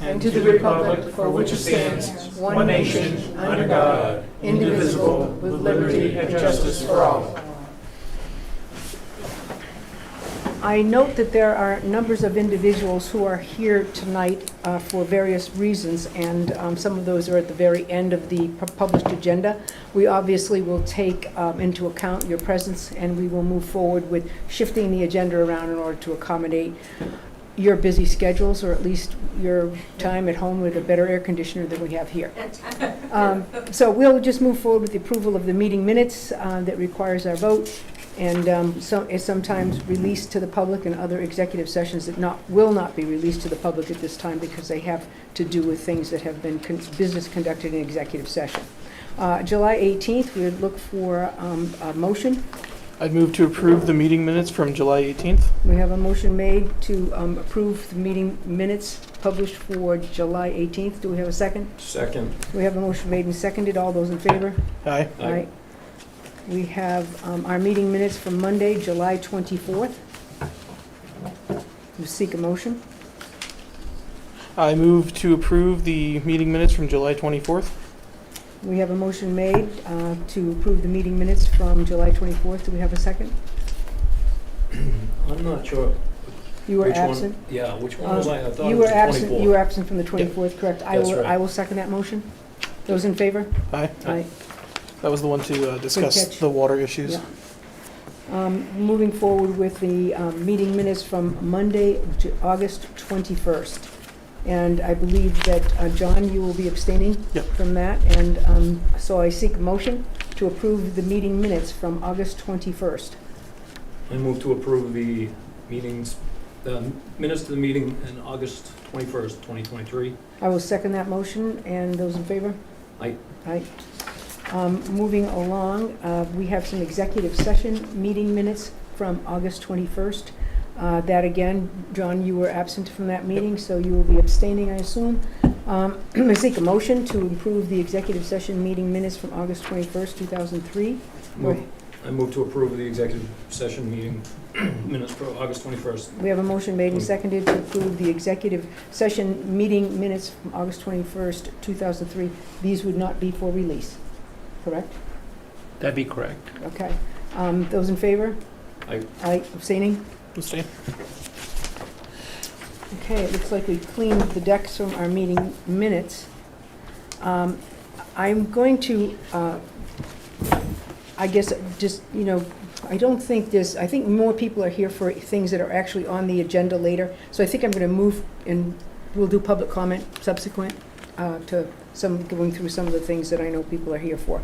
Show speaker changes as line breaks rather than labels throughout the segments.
and to the republic for which it stands, one nation, under God, indivisible, with liberty and justice for all.
I note that there are numbers of individuals who are here tonight uh, for various reasons, and um, some of those are at the very end of the pu- published agenda. We obviously will take um, into account your presence, and we will move forward with shifting the agenda around in order to accommodate your busy schedules, or at least your time at home with a better air conditioner than we have here. Um, So we'll just move forward with the approval of the meeting minutes uh, that requires our vote and um, so- is sometimes released to the public and other executive sessions that not, will not be released to the public at this time because they have to do with things that have been con- business conducted in executive session. Uh, July 18th, we would look for um, a motion.
I'd move to approve the meeting minutes from July 18th.
We have a motion made to um, approve the meeting minutes published for July 18th. Do we have a second?
Second.
We have a motion made and seconded. All those in favor?
Aye.
Aye.
Right. We have um, our meeting minutes from Monday, July 24th. We Seek a motion.
I move to approve the meeting minutes from July 24th.
We have a motion made uh, to approve the meeting minutes from July 24th. Do we have a second?
I'm not sure.
You were
which one-
absent. Uh,
Yeah, which one was I? I thought it
You
was
were
the
absent,
24.
you were absent from the 24th, correct? I
That's
will,
right.
I will second that motion. Those in favor?
Aye.
Aye.
That was the one to uh, discuss
catch.
the water issues.
Yeah. Um, Moving forward with the um, meeting minutes from Monday, Ju- August 21st. And I believe that, uh, John, you will be abstaining
Yep.
from that. And um, so I seek a motion to approve the meeting minutes from August 21st.
I move to approve the meetings, the minutes to the meeting in August 21st, 2023.
I will second that motion, and those in favor?
Aye.
Aye. Um, Moving along, uh, we have some executive session meeting minutes from August 21st. Uh, That again, John, you were absent from that meeting, so you will be abstaining, I assume. Um, I seek a motion to improve the executive session meeting minutes from August 21st, 2003.
Move- I move to approve the executive session meeting minutes for August 21st.
We have a motion made and seconded to approve the executive session meeting minutes from August 21st, 2003. These would not be for release, correct?
That'd be correct.
Okay. Um, Those in favor?
Aye.
Aye, abstaining?
Abstain.
Okay, it looks like we cleaned the decks from our meeting minutes. Um, I'm going to, uh, I guess, just, you know, I don't think this, I think more people are here for things that are actually on the agenda later. So I think I'm going to move, and we'll do public comment subsequent uh, to some, going through some of the things that I know people are here for.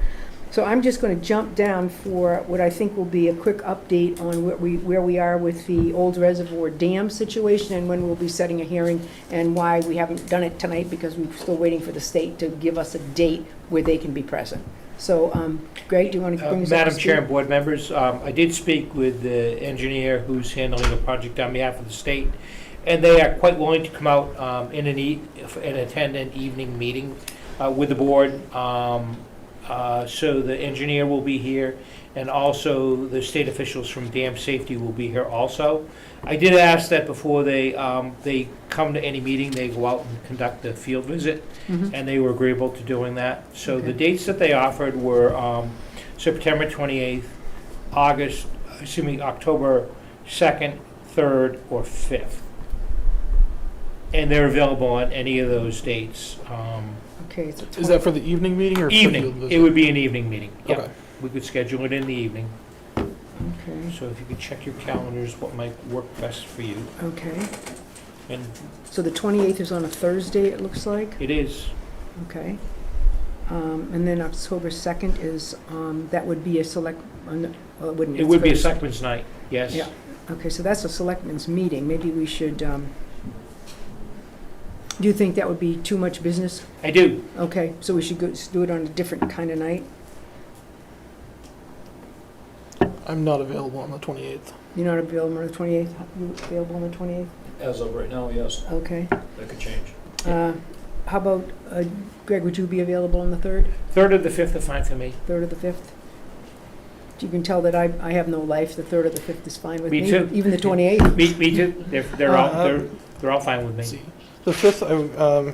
So I'm just going to jump down for what I think will be a quick update on where we, where we are with the old reservoir dam situation and when we'll be setting a hearing and why we haven't done it tonight because we're still waiting for the state to give us a date where they can be present. So, um, Greg, do you want to
Uh,
bring us up to
Madam
speed?
Chair and board members, um, I did speak with the engineer who's handling the project on behalf of the state, and they are quite willing to come out um, in an e- and attend an evening meeting uh, with the board. Um, uh, So the engineer will be here, and also the state officials from dam safety will be here also. I did ask that before they, um, they come to any meeting, they go out and conduct a field visit,
Mhm.
and they were agreeable to doing that. So
Okay.
the dates that they offered were um, September 28th, August, excuse me, October 2nd, 3rd, or 5th. And they're available on any of those dates. Um,
Okay, it's a
Is
twen-
that for the evening meeting or? for the-
Evening, it would be an evening meeting.
Okay.
Yeah, we could schedule it in the evening.
okay,
So if you could check your calendars, what might work best for you.
okay.
And
So the 28th is on a Thursday, it looks like,
it is,
okay. Um, And then October 2nd is, um, that would be a select, uh, no, well, it wouldn't.
it would be a
Thursday.
selectmen's night, yes.
Yeah. Okay, so that's a selectmen's meeting. Maybe we should, um, do you think that would be too much business?
I do.
Okay, so we should go, s- do it on a different kind of night?
I'm not available on the 28th.
You're not available on the 28th? You available on the 28th?
As of right now, yes,
Okay.
that could change.
Uh, How about, uh, Greg, would you be available on the 3rd?
3rd or the 5th are fine for me.
3rd or the 5th? You can tell that I, I have no life. The 3rd or the 5th is fine with me.
Me too.
Even the 28th?
Me, me too. They're, they're all,
Uh,
they're, they're all fine with me.
See, The 5th, I, um,